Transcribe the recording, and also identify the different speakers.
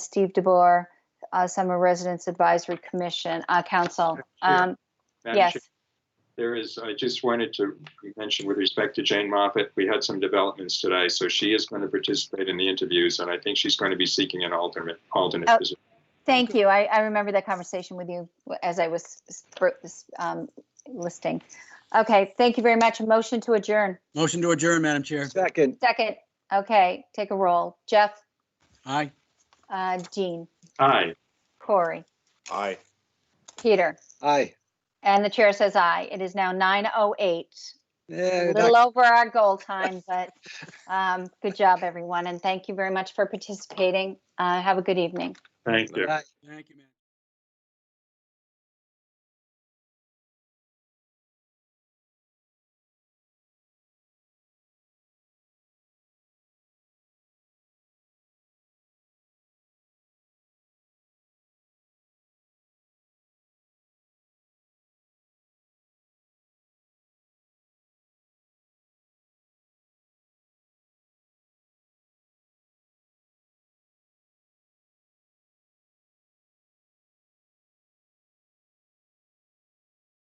Speaker 1: Steve DeBoer, uh, Summer Residence Advisory Commission, uh, Council. Um,
Speaker 2: Madam
Speaker 1: yes,
Speaker 2: Chair, There is, I just wanted to mention with respect to Jane Moffat, we had some developments today, so she is going to participate in the interviews, and I think she's going to be seeking an alternate, alternate
Speaker 1: Oh.
Speaker 2: position.
Speaker 1: thank you. I, I remember that conversation with you as I was sp- um, listing. Okay, thank you very much. A Motion to adjourn.
Speaker 3: Motion to adjourn, Madam Chair.
Speaker 4: Second,
Speaker 1: Second, okay, take a roll. Jeff,
Speaker 3: Aye.
Speaker 1: uh, Jean,
Speaker 2: Aye,
Speaker 1: Corey,
Speaker 5: Aye.
Speaker 1: Peter,
Speaker 4: aye.
Speaker 1: and the chair says aye. It is now 9:08.
Speaker 4: Eh,
Speaker 1: A
Speaker 4: that-
Speaker 1: little over our goal time, but um, good job, everyone, and thank you very much for participating. Uh, Have a good evening.
Speaker 2: thank you.
Speaker 4: aye.
Speaker 3: Thank you, Madam.